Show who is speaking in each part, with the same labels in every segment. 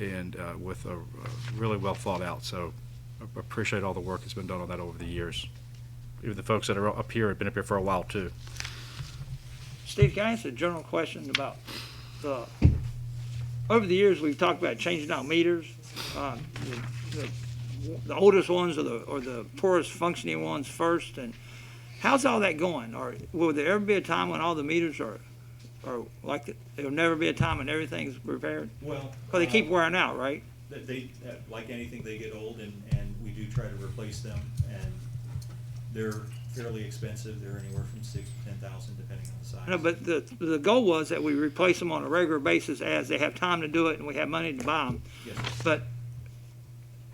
Speaker 1: and uh, with a a really well thought out. So I appreciate all the work that's been done on that over the years. Even the folks that are up here have been up here for a while too.
Speaker 2: Steve, can I ask a general question about the, over the years, we've talked about changing out meters. Uh, the- the- The oldest ones are the, are the poorest functioning ones first, and how's all that going? Or will there ever be a time when all the meters are, are like, there'll never be a time when everything's repaired?
Speaker 3: Well.
Speaker 2: Because they keep
Speaker 3: uh,
Speaker 2: wearing out, right?
Speaker 3: They, they- uh, like anything, they get old and, and we do try to replace them and they're fairly expensive. They're anywhere from six to ten thousand depending on the size.
Speaker 2: No, but the, the goal was that we replace them on a regular basis as they have time to do it and we have money to buy them.
Speaker 3: Yes, sir.
Speaker 2: But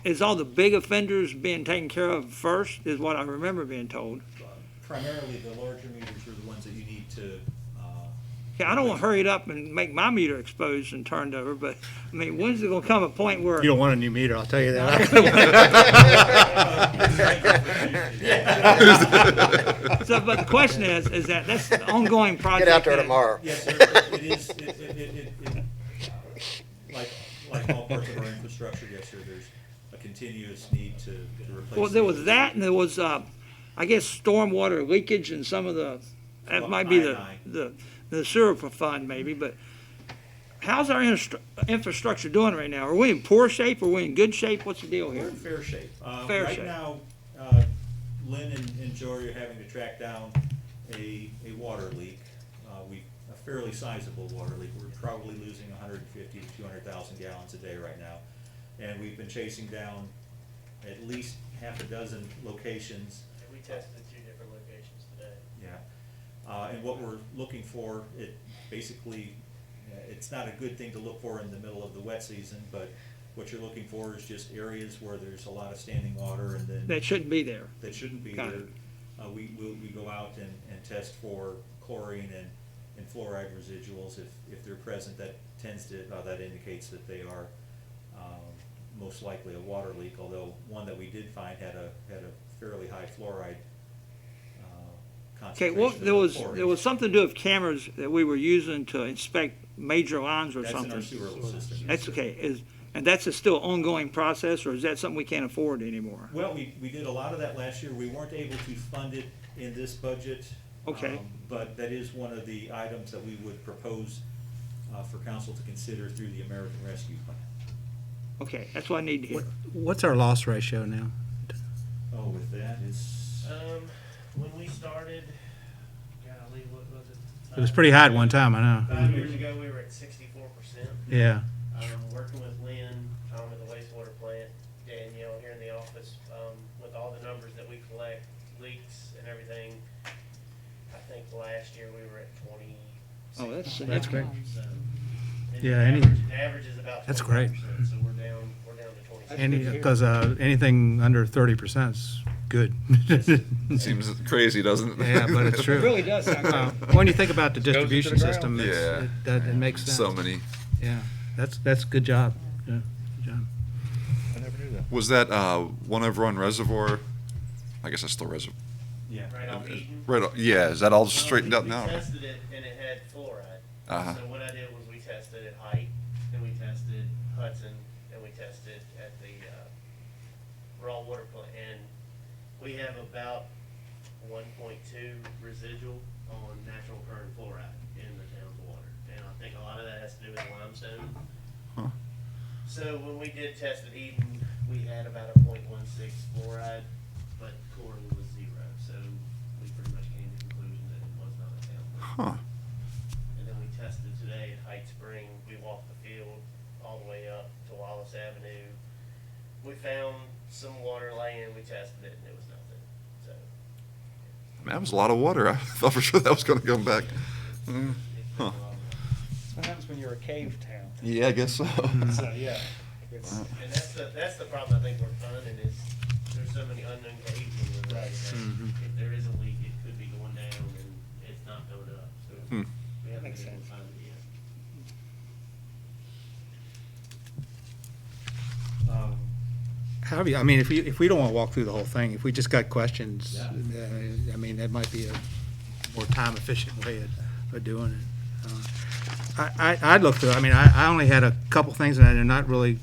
Speaker 2: is all the big offenders being taken care of first, is what I remember being told.
Speaker 3: Uh, primarily the larger meters are the ones that you need to, uh,
Speaker 2: Yeah, I don't want to hurry it up and make my meter exposed and turned over, but, I mean, when's it gonna come a point where,
Speaker 4: You don't want a new meter, I'll tell you that.
Speaker 2: so, but the question is, is that, that's an ongoing project.
Speaker 5: Get out there
Speaker 2: that-
Speaker 5: tomorrow.
Speaker 3: Yes, sir, it it is, it, it, it, it, it- like, like all parts of our infrastructure, yes, sir, there's a continuous need to to replace.
Speaker 2: Well, there
Speaker 3: the-
Speaker 2: was that and there was, uh, I guess, stormwater leakage and some of the, that
Speaker 3: Well,
Speaker 2: might be the,
Speaker 3: I-
Speaker 2: the, the sewer fund maybe, but how's our instru- infrastructure doing right now? Are we in poor shape? Are we in good shape? What's the deal
Speaker 3: We're
Speaker 2: here?
Speaker 3: in fair shape. Uh,
Speaker 2: Fair shape.
Speaker 3: Right now, uh, Lynn and and Jory are having to track down a, a water leak. Uh, We, a fairly sizable water leak. We're probably losing 150 to 200,000 gallons a day right now. And we've been chasing down at least half a dozen locations
Speaker 6: We tested two different locations today.
Speaker 3: yeah, uh, and what we're looking for, it basically, uh, it's not a good thing to look for in the middle of the wet season, but what you're looking for is just areas where there's a lot of standing water and then
Speaker 2: That shouldn't be there.
Speaker 3: that shouldn't be
Speaker 2: Got
Speaker 3: there.
Speaker 2: it.
Speaker 3: Uh, we, we, we go out and, and test for chlorine and, and fluoride residuals, if, if they're present, that tends to, uh, that indicates that they are, um, most likely a water leak, although one that we did find had a, had a fairly high fluoride, uh,
Speaker 2: Okay,
Speaker 3: concentration.
Speaker 2: well,
Speaker 3: of
Speaker 2: there was,
Speaker 3: chlorine.
Speaker 2: there was something to do with cameras that we were using to inspect major lines or
Speaker 3: That's in our
Speaker 2: something.
Speaker 3: sewer system. yes,
Speaker 2: That's
Speaker 3: sir.
Speaker 2: okay, is, and that's a still ongoing process, or is that something we can't afford anymore?
Speaker 3: Well, we, we did a lot of that last year. We weren't able to fund it in this budget.
Speaker 2: Okay.
Speaker 3: um, But that is one of the items that we would propose uh, for council to consider through the American Rescue Plan.
Speaker 2: Okay, that's what I need to hear.
Speaker 4: What- What's our loss ratio now?
Speaker 3: Oh, with that is,
Speaker 6: Um, when we started, golly, what was it?
Speaker 4: It was pretty high at one time, I know.
Speaker 6: Five years ago, we were at sixty-four percent.
Speaker 4: Yeah,
Speaker 6: Um, working with Lynn, um, at the wastewater plant, Danielle here in the office, um, with all the numbers that we collect, leaks and everything. I think last year we were at twenty.
Speaker 2: Oh, that's-
Speaker 4: that's great.
Speaker 6: So, and
Speaker 4: Yeah,
Speaker 6: the
Speaker 4: any-
Speaker 6: average- The average is about
Speaker 4: That's
Speaker 6: twenty
Speaker 4: great.
Speaker 6: percent, so we're down, we're down to twenty.
Speaker 4: any, because, uh, anything under thirty percent is good.
Speaker 7: Seems crazy, doesn't it?
Speaker 4: Yeah, but it's
Speaker 2: It
Speaker 4: true.
Speaker 2: really does sound
Speaker 4: Uh,
Speaker 2: good.
Speaker 4: When you think about the distribution system, it's,
Speaker 7: Yeah.
Speaker 4: it, that, it makes sense.
Speaker 7: so many.
Speaker 4: Yeah, that's, that's good job, yeah, good job.
Speaker 7: Was that uh, one over on Reservoir? I guess that's still Reservoir.
Speaker 3: yeah.
Speaker 6: Right off Eaton.
Speaker 7: Right. o- Yeah. Is that all
Speaker 6: Well,
Speaker 7: straightened
Speaker 6: we-
Speaker 7: out now?
Speaker 6: We tested it and it had fluoride.
Speaker 7: Uh-huh.
Speaker 6: So what I did was we tested at Height, and we tested Hudson, and we tested at the uh, raw water plant. And we have about 1.2 residual on natural current fluoride in the town's water. And I think a lot of that has to do with limestone.
Speaker 7: Huh.
Speaker 6: So when we did test at Eden, we had about a 0.16 fluoride, but chlorine was zero. So we pretty much came to the conclusion that it was not a town. leak.
Speaker 7: Huh.
Speaker 6: And then we tested today at Height Spring. We walked the field all the way up to Wallace Avenue. We found some water laying. We tested it and it was nothing. So
Speaker 7: Man, that was a lot of water. I thought for sure that was going to come back. Mm.
Speaker 6: it's been a
Speaker 7: Huh.
Speaker 6: lot.
Speaker 8: What happens when you're a cave town?
Speaker 7: Yeah, I guess so.
Speaker 4: Hmm.
Speaker 8: So, yeah. It's,
Speaker 6: And that's the, that's the problem I think we're finding is there's so many unknown caves in the road. that
Speaker 7: Mm-hmm.
Speaker 6: If there is a leak, it could be going down and it's not going up. So
Speaker 7: Hmm.
Speaker 6: we haven't
Speaker 2: Makes
Speaker 6: been able to
Speaker 2: sense.
Speaker 6: find it yet.
Speaker 3: Um,
Speaker 4: How do you, I mean, if we, if we don't want to walk through the whole thing, if we just got questions,
Speaker 3: Yeah.
Speaker 4: uh, I mean, that might be a more time-efficient way of, of doing it. Uh, I, I, I'd look through, it. I mean, I, I only had a couple things and they're not really